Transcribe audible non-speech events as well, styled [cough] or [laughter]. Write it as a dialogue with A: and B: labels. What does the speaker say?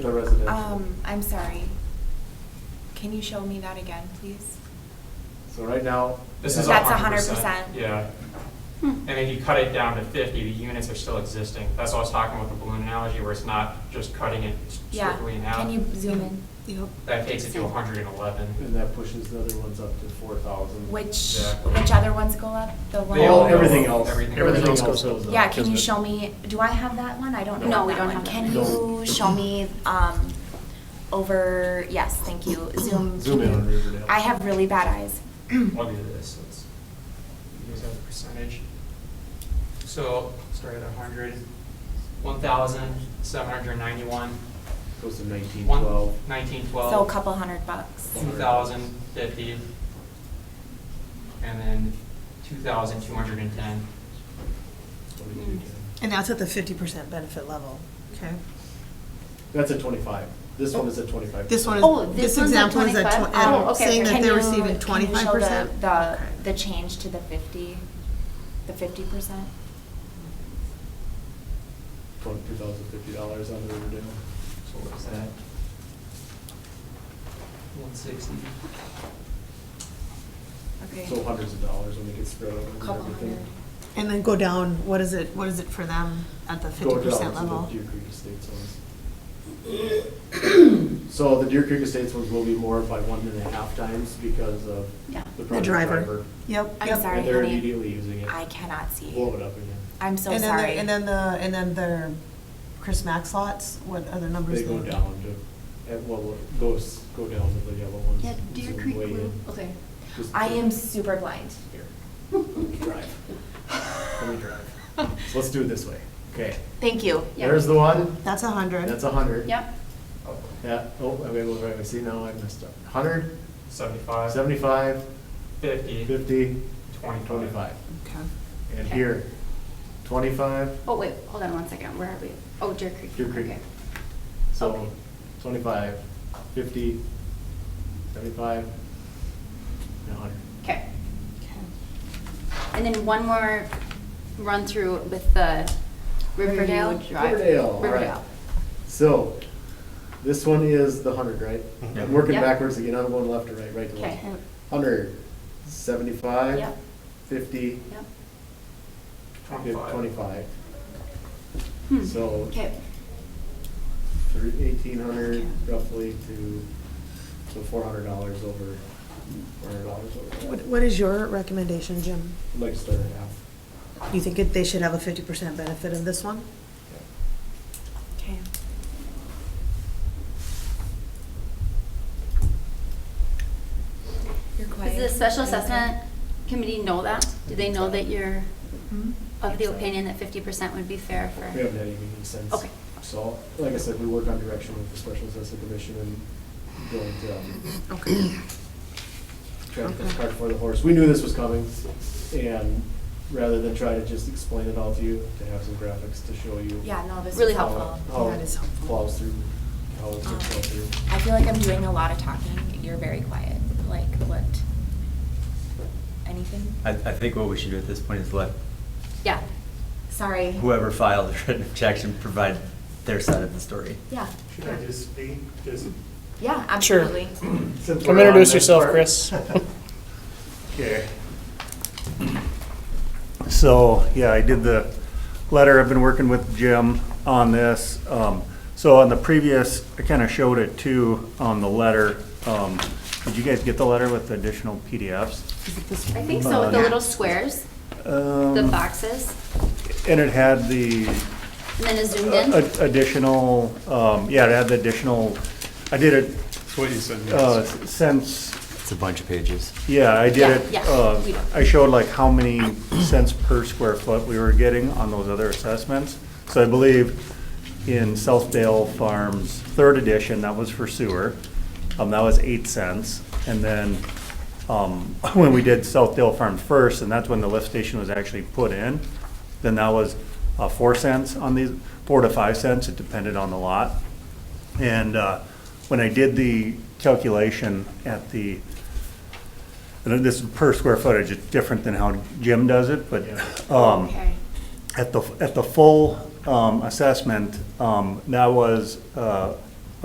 A: The residential.
B: Um, I'm sorry. Can you show me that again, please?
A: So right now.
C: This is
B: That's
C: a
B: a Hmm.
C: hundred percent.
B: 100%.
C: Yeah. And if you cut it down to fifty, the units are still existing. That's what I was talking about the balloon analogy, where it's not just cutting it
B: Yeah,
C: strictly in half.
B: can you zoom in?
C: That takes it to hundred and eleven.
A: And that pushes the other ones up to four thousand.
B: Which,
C: Yeah.
B: which other ones go up? The one?
C: They all go
A: everything
C: up.
A: else.
C: Everything
A: Everything
C: else
A: else
C: goes
A: goes up.
B: Yeah, can
A: Isn't
B: you
A: it?
B: show me, do I have that one? I don't know.
D: No, we don't have that.
B: Can
A: No.
B: you show me, um, over, yes, thank you, zoom.
A: Zoom in on
B: can you-
A: Riverdale.
B: I have really bad eyes. [clears throat]
C: I'll do this, let's, here's our percentage. So, start at a hundred, one thousand, seven hundred and ninety-one,
A: Goes to nineteen
C: one,
A: twelve.
C: nineteen, twelve.
B: So a couple hundred bucks.
C: two thousand fifty, and then two thousand two hundred and ten.
B: Mm.
E: And that's at the fifty percent benefit level, okay?
A: That's a twenty-five. This one is a twenty-five.
E: This one
D: Oh,
E: is,
D: this
E: this
D: one's at
E: example is at
D: 25?
E: twen-
B: Um,
E: at-
D: Oh, okay,
E: saying
D: okay.
E: that
B: Can
E: they're
B: you-
E: receiving
B: can you show the-
E: twenty-five percent?
B: The, the change to the fifty, the fifty percent?
A: Twenty-two thousand fifty dollars on Riverdale.
C: So what is that? One sixty.
B: Okay.
A: So hundreds of dollars when it gets spread over and
B: Couple hundred.
A: everything.
E: And then go down, what is it, what is it for them at the
A: Go
E: fifty
A: down
E: percent
A: to the
E: level?
A: Deer Creek Estates ones. So the Deer Creek Estates ones will be more by one and a half times because of
D: Yeah.
A: the
E: The
A: project
E: driver,
A: driver.
E: yep,
B: I'm
E: yep.
B: sorry.
A: And they're
B: honey.
A: immediately using it.
B: I cannot see.
A: Blow it up again.
B: I'm so
E: And then the-
B: sorry.
E: And then the, and then their Chris Max lots, what other numbers?
A: They go down to, at, well, go, s- go down to the yellow ones.
D: Yeah, Deer
A: zoom
D: Creek
A: way
D: Loop,
A: in.
D: okay.
A: Just-
B: I am super blind.
A: Here, let me [laughs] drive. Let me drive. So Let's do it this way. Okay,
B: Thank you.
D: Yeah.
A: there's the one,
E: That's a hundred.
A: that's a hundred.
D: Yep,
A: Yeah, oh, I'm able to, I see now I messed up. Hundred,
C: Seventy-five.
A: seventy-five,
C: Fifty.
A: fifty,
C: Twenty-five.
A: twenty-five.
E: Okay.
A: And
D: Okay.
A: here, twenty-five,
D: oh wait, hold on one second, where are we? Oh, Deer Creek.
A: Deer Creek.
D: Okay.
A: so
D: Okay.
A: twenty-five, fifty, seventy-five, and hundred.
D: Okay,
E: Okay.
D: and then one more run through with the Riverdale
B: Riverdale.
D: Drive.
A: Riverdale, all right.
D: Riverdale.
A: So, this one is the hundred, right?
C: Yep.
A: I'm working
D: Yep.
A: backwards again, I'm going left to right, right to
D: Okay,
A: left. Hundred, seventy-five,
D: Yep.
A: fifty,
D: yep.
A: fif-
C: Twenty-five.
A: twenty-five,
D: Hmm.
A: So-
D: Okay,
A: through eighteen hundred roughly to, so four hundred dollars over, four hundred dollars over.
E: What,
A: that.
E: what is your recommendation, Jim?
A: I'd Like to start at half.
E: You think it- they should have a fifty percent benefit in this one?
B: Okay. You're quiet.
D: does the special
B: Are you okay?
D: assessment committee know that? Do they know that you're
B: Hmm?
D: of the opinion that fifty percent would be fair for?
A: We haven't had any meetings since.
D: Okay.
A: So, like I said, we work on direction with the special assessment commission and going to, um,
E: Okay.
A: trying to put the
E: Okay.
A: cart before the horse. We knew this was coming, and rather than try to just explain it all to you, to have some graphics to show you.
B: Yeah, no, this is
D: Really
A: how-
B: helpful.
A: How
E: That
A: it
E: is helpful. Uh-huh.
A: flows through, how it's
B: Um,
A: flow through.
B: I feel like I'm doing a lot of talking. You're very quiet. Like, what? Anything?
F: I, I think what we should do at this point is let
D: Yeah,
B: Sorry.
F: whoever filed the written [laughs] objection provide their side of the story.
B: Yeah,
G: Should I just speak? Just
B: yeah,
H: Sure.
B: absolutely.
A: Since
H: Come
A: we're on
H: introduce
A: this
H: yourself,
A: part-
H: Chris.
G: Okay. So, yeah, I did the letter, I've been working with Jim on this. Um, So on the previous, I kind of showed it too on the letter. Um, Did you guys get the letter with the additional PDFs?
E: Is it this one?
D: I think so, with the
G: Uh,
D: little squares, the
G: The
D: boxes,
G: Um, And it had the
D: and then a zoomed
A: Uh,
D: in.
G: a- additional, um, yeah, it had the additional, I did it.
H: Oh,
G: uh, Since
F: It's a bunch of pages.
G: Yeah, I
D: Yeah,
G: did it,
D: yeah,
G: uh,
D: we don't.
G: I showed like how many cents per square foot we were getting on those other assessments. So I believe in Southdale Farms, third edition, that was for sewer, um, that was eight cents. And then, um, [laughs] when we did Southdale Farm first, and that's when the lift station was actually put in, then that was, uh, four cents on these, four to five cents, it depended on the lot. And, uh, when I did the calculation at the, and this is per square footage, it's different than how Jim does it, but, um,
D: Okay.
G: at the, at the full, um, assessment, um, that was, uh,